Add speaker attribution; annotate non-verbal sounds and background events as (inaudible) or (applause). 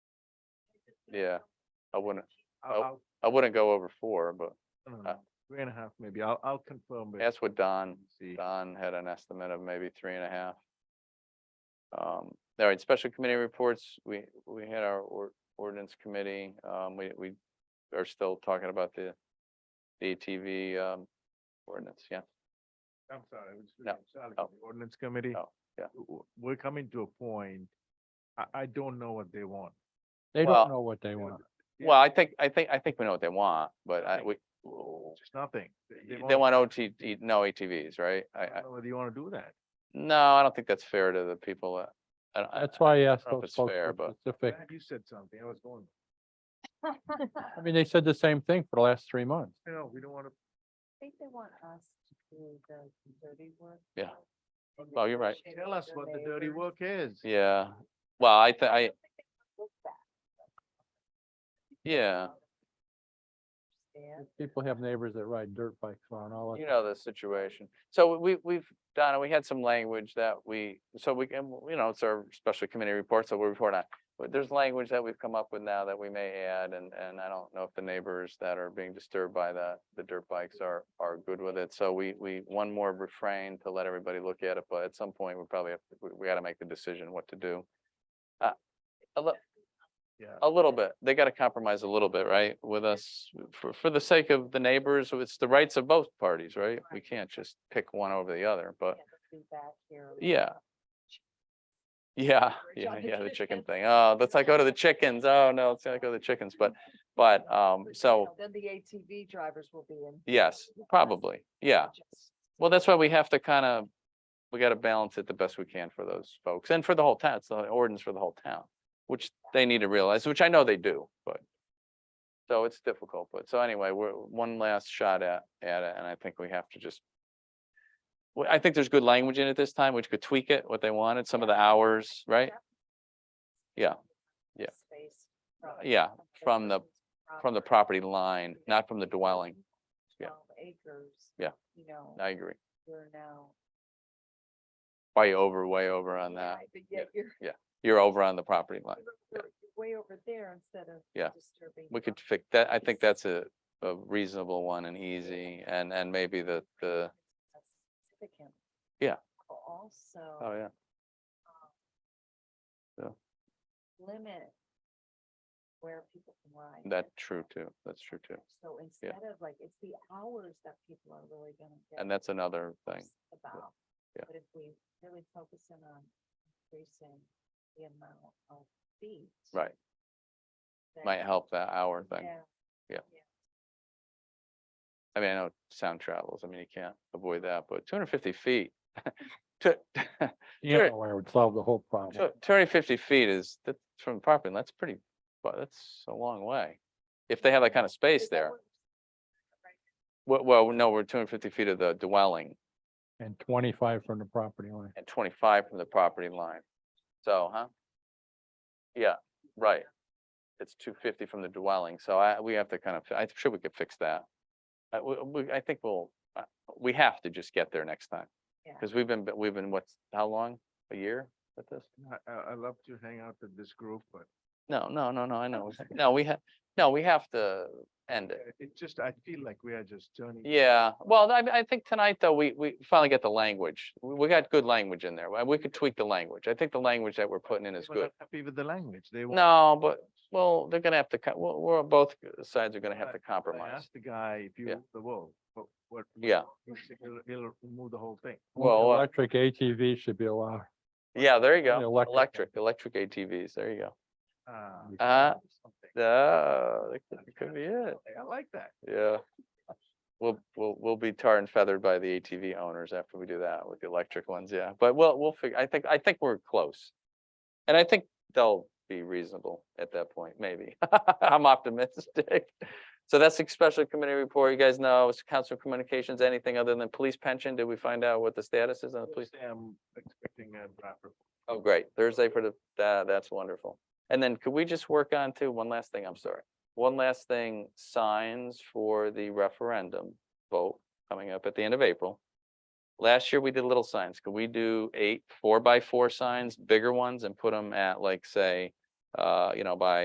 Speaker 1: yeah, I wouldn't,
Speaker 2: I'll,
Speaker 1: Oh.
Speaker 2: I'll,
Speaker 1: I wouldn't go over four, but
Speaker 2: I don't
Speaker 1: Uh,
Speaker 2: know, three and a half maybe. I'll, I'll confirm. with
Speaker 1: that's what Don,
Speaker 2: See,
Speaker 1: Don had an estimate of maybe three and a half. Um, all right, special committee reports, we, we had our or- ordinance committee, um, we, we are still talking about the the ATV, um, ordinance, yeah.
Speaker 2: I'm sorry, I was
Speaker 1: No,
Speaker 2: reading Sally,
Speaker 1: oh,
Speaker 2: the ordinance committee.
Speaker 1: oh, yeah.
Speaker 2: W- We're coming to a point, I, I don't know what they want.
Speaker 3: They
Speaker 1: Well,
Speaker 3: don't know what they want.
Speaker 2: Yeah.
Speaker 1: Well, I think, I think, I think we know what they want, but I,
Speaker 2: Okay.
Speaker 1: we,
Speaker 2: Just nothing.
Speaker 1: they want OT, no ATVs, right? I,
Speaker 2: I
Speaker 1: I,
Speaker 2: don't know whether you want to do that.
Speaker 1: no, I don't think that's fair to the people that. I don't- I-
Speaker 3: That's why I asked
Speaker 1: don't know if
Speaker 3: those
Speaker 1: it's
Speaker 3: folks
Speaker 1: fair,
Speaker 3: for
Speaker 1: but-
Speaker 3: specific.
Speaker 2: Glad You said something, I was going,
Speaker 3: I mean, they said the same thing for the last three months.
Speaker 2: you know, we don't want to.
Speaker 4: think they want us to do the dirty work.
Speaker 1: Yeah.
Speaker 4: first, and
Speaker 1: Oh,
Speaker 4: then
Speaker 1: you're right.
Speaker 4: share
Speaker 2: Tell
Speaker 4: with
Speaker 2: us
Speaker 4: your
Speaker 2: what the dirty
Speaker 4: neighbors.
Speaker 2: work is.
Speaker 1: Yeah, well, I, thi- I,
Speaker 4: don't think they want to look back.
Speaker 1: yeah,
Speaker 4: Understand?
Speaker 3: People have neighbors that ride dirt bikes around all the
Speaker 1: you
Speaker 3: time.
Speaker 1: know the situation. So we, we've, Donna, we had some language that we, so we can, you know, it's our special committee report, so we report on. But there's language that we've come up with now that we may add, and, and I don't know if the neighbors that are being disturbed by the, the dirt bikes are, are good with it. So we, we, one more refrain to let everybody look at it, but at some point, we probably have, to- we, we gotta make the decision what to do. Uh, A little,
Speaker 2: Yeah.
Speaker 1: a little bit, they gotta compromise a little bit, right, with us, for, for the sake of the neighbors, it's the rights of both parties, right? We
Speaker 4: Right.
Speaker 1: can't just pick one over the other, but,
Speaker 4: Yeah, let's do that here.
Speaker 1: yeah. Yeah,
Speaker 4: Or
Speaker 1: yeah,
Speaker 4: jump
Speaker 1: yeah,
Speaker 4: into
Speaker 1: the
Speaker 4: the
Speaker 1: chicken
Speaker 4: fence.
Speaker 1: thing, oh, let's not go to the chickens, oh, no, let's not go to the chickens, but, but, um, so,
Speaker 4: Then the ATV drivers will be in.
Speaker 1: yes, probably, yeah.
Speaker 4: Just-
Speaker 1: Well, that's why we have to kind of, we gotta balance it the best we can for those folks, and for the whole town, it's the ordinance for the whole town, which they need to realize, which I know they do, but. So it's difficult, but so anyway, we're one last shot at, at it, and I think we have to just. Well, I think there's good language in it this time, which could tweak it, what they wanted, some of the hours, right? Yeah, yeah.
Speaker 4: Space from-
Speaker 1: yeah, from the-
Speaker 4: person's
Speaker 1: From the property line, not from the dwelling, yeah.
Speaker 4: Twelve acres.
Speaker 1: Yeah.
Speaker 4: You know,
Speaker 1: I agree,
Speaker 4: you're now.
Speaker 1: way over, way over on that,
Speaker 4: Right, But
Speaker 1: yeah.
Speaker 4: yet you're
Speaker 1: you're over on the property line.
Speaker 4: you're- you're way over there instead of.
Speaker 1: Yeah.
Speaker 4: Disturbing.
Speaker 1: We could
Speaker 4: property.
Speaker 1: fix that. I
Speaker 4: Yes.
Speaker 1: think that's a, a reasonable one and easy and, and maybe the, the,
Speaker 4: Significant.
Speaker 1: Yeah. oh,
Speaker 4: Also
Speaker 1: yeah.
Speaker 4: limit where people can ride.
Speaker 1: That's true too. That's true too.
Speaker 4: So instead of like, it's the hours that people are really gonna get.
Speaker 1: And that's another thing.
Speaker 4: upset About.
Speaker 1: Yeah.
Speaker 4: But if we really focus in on increasing the amount of feet.
Speaker 1: Right.
Speaker 4: then-
Speaker 1: Might help that hour thing.
Speaker 4: Yeah,
Speaker 1: I mean, I know sound travels. I mean, you can't avoid that, but two hundred fifty feet. (laughs) Two (laughs)
Speaker 3: You
Speaker 1: Sure.
Speaker 3: know, where it would solve the whole problem.
Speaker 1: hundred fifty feet is, that's from property. line, That's pretty, but that's a long way. If they have that kind of space
Speaker 4: Is that
Speaker 1: there.
Speaker 4: what-
Speaker 1: Well, well, no, we're two hundred fifty feet of the dwelling.
Speaker 3: And twenty-five from the property line.
Speaker 1: and twenty-five from the property line. So, huh? Yeah, right. It's two fifty from the dwelling, so I, we have to kind of, I'm sure we could fix that. I, we, we- I think we'll, uh, we have to just get there next time.
Speaker 4: Yeah.
Speaker 1: Cause we've been, we've been, what's, how long? A year with this?
Speaker 2: I, I, I love to hang out with this group, but
Speaker 1: No, no, no, no, I know. No, we have, no, we have to end it.
Speaker 2: uh, it just, I feel like we are just turning.
Speaker 1: Yeah, well, I, I think tonight though, we, we finally get the language. We, we got good language in there. We- We could tweak the language. I think the language that we're putting in is
Speaker 2: People are
Speaker 1: good.
Speaker 2: Happy with the language, they. want-
Speaker 1: No, but Well, they're gonna have to, co- we're, we're, both uh, sides are gonna have
Speaker 2: But
Speaker 1: to
Speaker 2: I
Speaker 1: compromise.
Speaker 2: asked the guy if you
Speaker 1: Yeah.
Speaker 2: move the wall, but what?
Speaker 1: Yeah.
Speaker 2: He said He'll, he'll remove the whole thing.
Speaker 1: Well, uh,
Speaker 3: Electric ATV should be allowed.
Speaker 1: Yeah, there you go.
Speaker 3: electric.
Speaker 1: Electric, electric ATVs, there you
Speaker 2: Ah,
Speaker 1: Uh,
Speaker 2: something.
Speaker 1: go. Uh, that could- that could be it,
Speaker 2: I like that.
Speaker 1: yeah. We'll, we'll, we'll be tar and feathered by the ATV owners after we do that with the electric ones, yeah. But we'll, we'll figure, I think, I think we're close. And I think they'll be reasonable at that point, maybe. (laughs) I'm optimistic. So that's the special committee report. You guys know, it's council communications, anything other than police pension? Did we find out what the status is on the police?
Speaker 2: Thursday, I'm expecting a draft report.
Speaker 1: Oh, great. Thursday for the, that, that's wonderful. And then could we just work on too, one last thing, I'm sorry. One last thing, signs for the referendum vote coming up at the end of April. Last year, we did little signs. Could we do eight four by four signs, bigger ones and put them at like, say, uh, you know, by